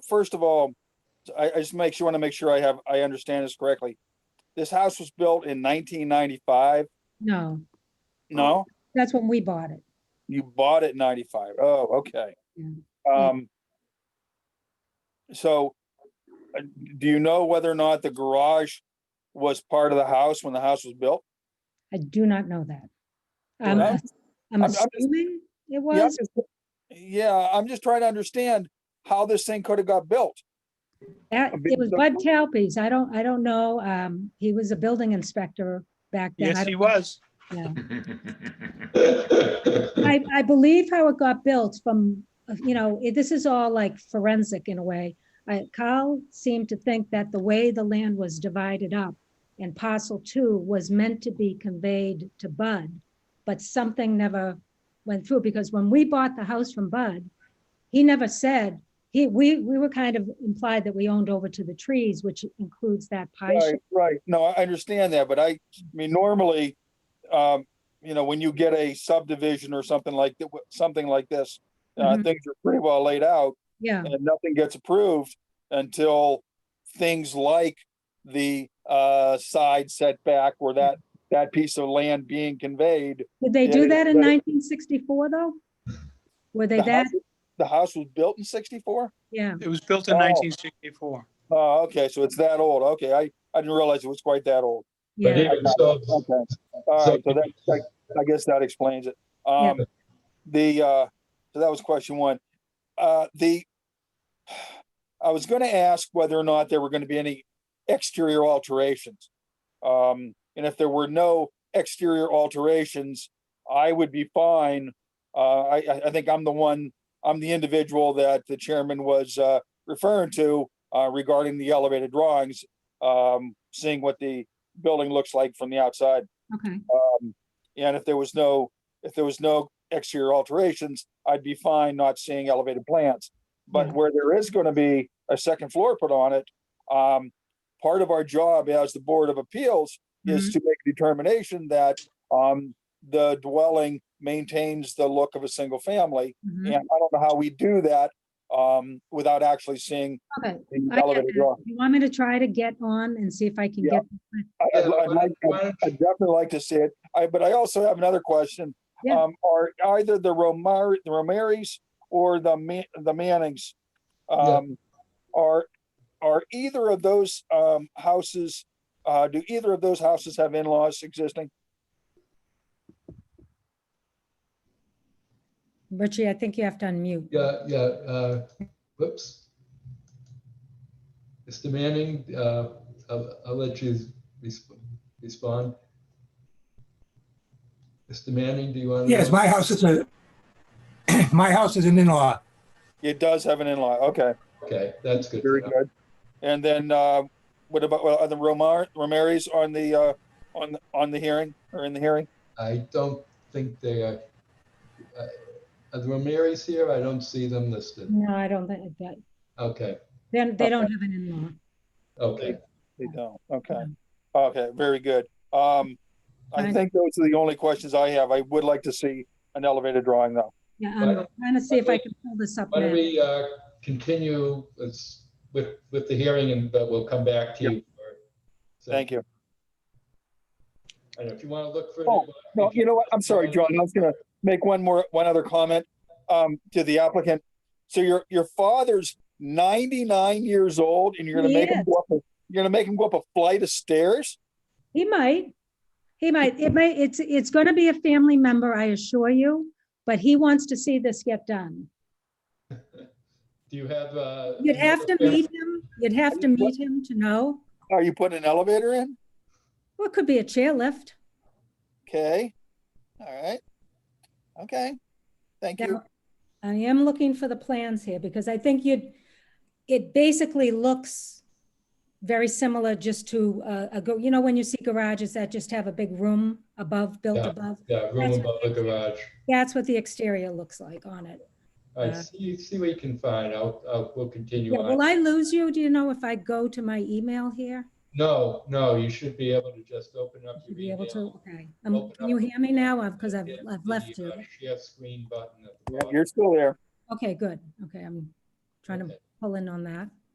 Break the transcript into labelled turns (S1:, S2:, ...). S1: first of all, I, I just make sure, want to make sure I have, I understand this correctly. This house was built in nineteen ninety-five?
S2: No,
S1: No,
S2: that's when we bought it.
S1: you bought it in ninety-five. Oh, okay.
S2: Yeah.
S1: Um. So, uh, do you know whether or not the garage was part of the house when the house was built?
S2: I do not know that. I'm,
S1: Well,
S2: ass-
S1: I'm-
S2: I'm
S1: I'm just-
S2: assuming it
S1: Yeah, I'm
S2: was,
S1: just- Yeah, I'm just trying to understand how this thing could have got built.
S2: that,
S1: I'm being
S2: it was
S1: so-
S2: Bud Talpe's. I don't, I don't know. Um, he was a building inspector back then. I
S3: Yes, he
S2: don't-
S3: was.
S2: yeah. I, I believe how it got built from, uh, you know, it- this is all like forensic in a way. I- Carl seemed to think that the way the land was divided up and parcel two was meant to be conveyed to Bud, but something never went through because when we bought the house from Bud, he never said, he, we, we were kind of implied that we owned over to the trees, which includes that pie
S1: Right,
S2: shape.
S1: right. No, I understand that, but I, I mean, normally, um, you know, when you get a subdivision or something like that, something like this, uh,
S2: Mhm.
S1: things are pretty well laid out
S2: Yeah,
S1: and nothing gets approved until things like the, uh, side setback or that, that piece of land being conveyed.
S2: did they
S1: Yeah,
S2: do that in
S1: but-
S2: nineteen sixty-four though? Were they
S1: The
S2: that,
S1: house- The house was built in sixty-four?
S2: yeah?
S3: It was built in
S1: Oh.
S3: 1964.
S1: Oh, okay, so it's that old. Okay, I, I didn't realize it was quite that old.
S4: But
S2: Yeah,
S4: even so,
S1: Okay, all right, so that, that- I guess that explains it. Um, the, uh, so that was question one. Uh, the, I was gonna ask whether or not there were gonna be any exterior alterations. Um, and if there were no exterior alterations, I would be fine. Uh, I, I, I think I'm the one, I'm the individual that the chairman was, uh, referring to, uh, regarding the elevated drawings, um, seeing what the building looks like from the outside.
S2: okay.
S1: And if there was no, if there was no exterior alterations, I'd be fine not seeing elevated plants. But
S2: Yeah.
S1: where there is gonna be a second floor put on it, um, part of our job as the Board of Appeals is
S2: Mm-hmm.
S1: to make a determination that, um, the dwelling maintains the look of a single family.
S2: Mhm.
S1: And I don't know how we do that, um, without actually seeing
S2: Okay,
S1: the
S2: I get
S1: elevated
S2: that.
S1: drawing.
S2: You want me to try to get on and see if I can
S1: Yeah.
S2: get,
S1: I- I'd-
S4: Yeah,
S1: I'd
S4: why-
S1: like-
S4: why don't
S1: I'd definitely like to see it. I, but I also have another question.
S2: Yeah.
S1: Um, are either the Romar, the Romaries or the Ma- the Mannings?
S4: Yeah.
S1: Um, are, are either of those, um, houses, uh, do either of those houses have in-laws existing?
S2: Richie, I think you have to unmute.
S4: Yeah, yeah, uh, whoops. Mr. Manning, uh, I'll, I'll let you resp- respond. Mr. Manning, do you want? to?
S5: Yes, my house is a, my house is an in-law.
S1: It does have an in-law, okay,
S4: Okay, that's good. to
S1: very
S4: know.
S1: good. And then, uh, what about, well, are the Romar, Romaries on the, uh, on, on the hearing or in the hearing?
S4: I don't think they are. uh, Are the Ramirez here? I don't see them listed.
S2: No, I don't think that,
S4: Okay,
S2: then they
S1: Okay.
S2: don't have an in-law.
S4: okay.
S1: They don't, okay. Okay, very good. Um, I
S2: Fine.
S1: think those are the only questions I have. I would like to see an elevated drawing though.
S2: Yeah,
S4: Why
S2: I'm
S4: don't-
S2: trying to see if
S4: why
S2: I
S4: don't
S2: can pull this up
S4: Why don't
S2: now.
S4: we uh, continue with, with with the hearing and, but we'll come back to you. for- so-
S1: Thank you.
S4: I don't know if you want to look for.
S1: Oh, No, you know what? I'm sorry, John. I was gonna make one more, one other comment, um, to the applicant. So your, your father's ninety-nine years old and you're gonna make him
S2: Yes.
S1: go up, a- you're gonna make him go up a flight of stairs?
S2: He might, he might, it may, it's, it's gonna be a family member, I assure you, but he wants to see this get done.
S4: Do you have? uh,
S2: You'd have to meet him, you'd have to meet him to know.
S1: Are you putting an elevator in?
S2: Well, it could be a chairlift.
S1: Okay, all right. Okay, thank you.
S2: Now, I am looking for the plans here because I think you'd, it basically looks very similar just to uh, a, go. you know, when you see garages that just have a big room above, built
S4: Yeah.
S2: above.
S4: Yeah, room
S2: That's
S4: above the garage.
S2: That's what the exterior looks like on it.
S4: All right,
S2: Uh,
S4: see, see what you can find. I'll, I'll, we'll continue
S2: Yeah,
S4: on.
S2: will I lose you? Do you know if I go to my email here?
S4: No, no, you should be able to just open up
S2: Should
S4: your
S2: Be able to,
S4: email.
S2: okay. Um,
S4: Open
S2: Can you
S4: up.
S2: hear me now? Because I've,
S4: Hit
S2: I've
S4: the,
S2: left you.
S4: uh, Share screen button at the
S1: Yeah,
S4: bottom.
S1: You're still there.
S2: Okay, good. Okay, I'm trying to
S4: Okay.
S2: pull in on that.